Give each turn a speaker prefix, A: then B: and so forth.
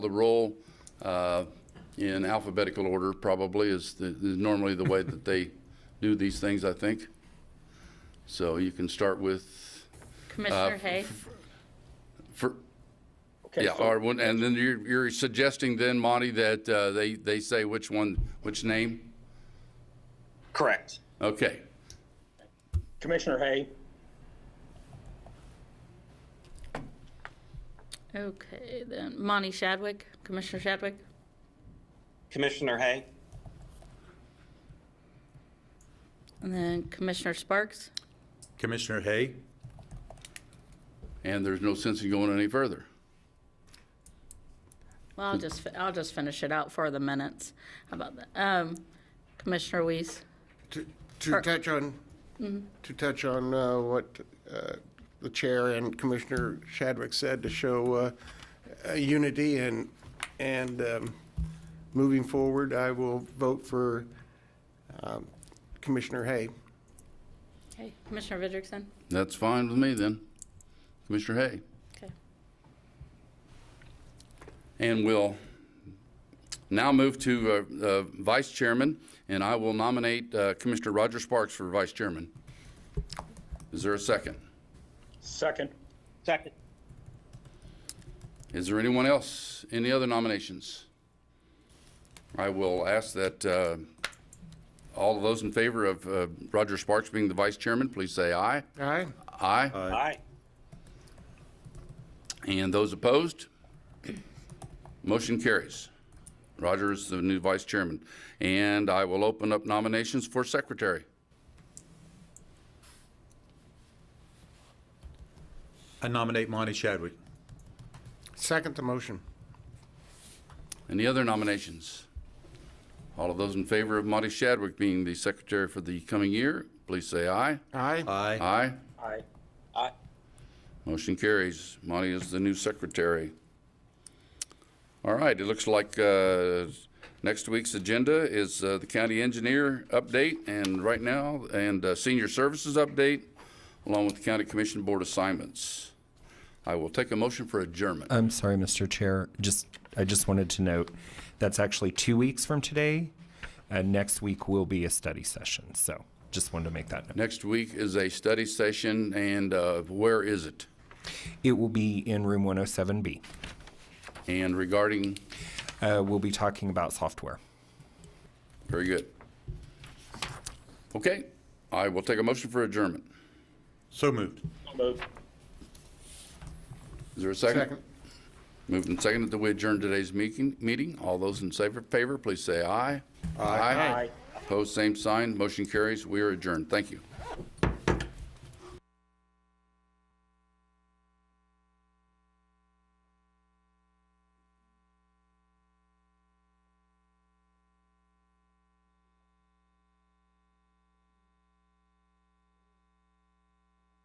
A: the roll uh, in alphabetical order probably is the- is normally the way that they do these things, I think. So you can start with,
B: Commissioner Hay,
A: for,
C: Okay,
A: yeah,
C: so-
A: or, one- and then you're, you're suggesting then, Monty, that uh, they, they say which one, which name?
C: Correct.
A: Okay.
C: Commissioner Hay,
B: okay, then Monty Shadwick, Commissioner Shadwick,
D: Commissioner Hay,
B: and then Commissioner Sparks.
E: Commissioner Hay?
A: And there's no sense in going any further.
B: Well, I'll just, fi- I'll just finish it out for the minutes. How about that? Um, Commissioner Weiss,
F: To- To touch on, to touch on uh, what uh, the Chair and Commissioner Shadwick said, to show uh, uh, unity and, and um, moving forward, I will vote for um, Commissioner Hay.
B: okay, Commissioner Vidrickson,
A: That's fine with me then. Commissioner Hay.
B: okay.
A: And we'll now move to uh, uh, Vice Chairman, and I will nominate uh, Commissioner Roger Sparks for Vice Chairman. Is there a second?
C: second.
D: second.
A: Is there anyone else, any other nominations? I will ask that uh, all of those in favor of uh, Roger Sparks being the Vice Chairman, please say aye.
F: Aye?
A: Aye.
D: Aye.
A: And those opposed? Motion carries. Roger is the new Vice Chairman. And I will open up nominations for Secretary.
E: I nominate Monty Chadwick.
F: Second the motion.
A: Any other nominations? All of those in favor of Monty Shadwick being the secretary for the coming year, please say aye.
F: Aye?
E: Aye.
A: Aye.
C: Aye.
D: Aye.
A: Motion carries. Monty is the new secretary. All right, it looks like uh, next week's agenda is uh, the county engineer update and right now, and uh, senior services update, along with the county commission board assignments. I will take a motion for adjournment.
G: I'm sorry, Mr. Chair. Just, I just wanted to note, that's actually two weeks from today. And next week will be a study session. So just wanted to make that note.
A: Next week is a study session, and uh, where is it?
G: It will be in room 107B.
A: And regarding,
G: Uh, we'll be talking about software.
A: very good. Okay, I will take a motion for adjournment.
E: So moved.
C: So moved.
A: Is there a second? Moved and seconded that we adjourn today's meeting, meeting. All those in favor, favor, please say aye. Aye.
C: Aye.
A: Opposed, same sign. Motion carries. We are adjourned. Thank you.